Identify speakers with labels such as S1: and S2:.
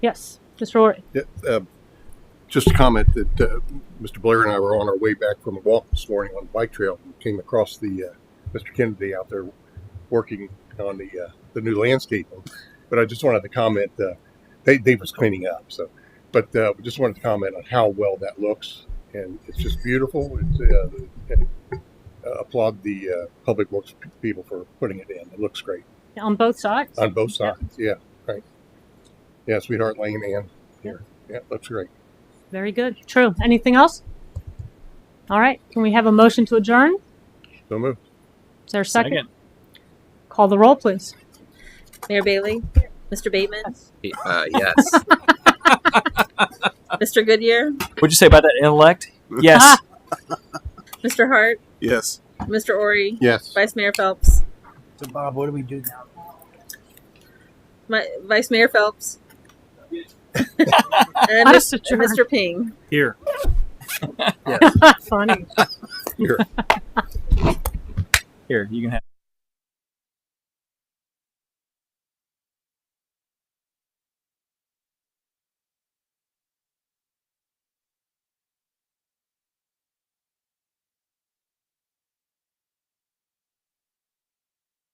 S1: Yes, Mr. O'Rourke.
S2: Yeah, uh, Just a comment that uh, Mr. Blair and I were on our way back from a walk this morning on the bike trail and came across the, uh, Mr. Kennedy out there working on the, uh, the new landscaping. But I just wanted to comment, uh, they, they was cleaning up, so, but uh, just wanted to comment on how well that looks. And it's just beautiful. It's, uh, uh, applaud the uh, public works people for putting it in. It looks great
S1: On both sides?
S2: on both sides. Yeah, right. Yeah, Sweetheart Lane and here. Yeah, looks great.
S1: Very good. True. Anything else? All right. Can we have a motion to adjourn?
S2: So move.
S1: Is there a second? Call the roll, please.
S3: Mayor Bailey? Mr. Bateman?
S4: Uh, yes.
S3: Mr. Goodyear?
S5: What'd you say about that intellect?
S1: Ah.
S5: Yes.
S3: Mr. Hart?
S4: yes.
S3: Mr. Ori?
S2: Yes.
S3: Vice Mayor Phelps?
S6: So Bob, what do we do now?
S3: My, Vice Mayor Phelps? and
S1: Us
S3: Mr.
S1: adjourned.
S3: Ping?
S5: Here.
S1: Ah, Funny.
S2: Here.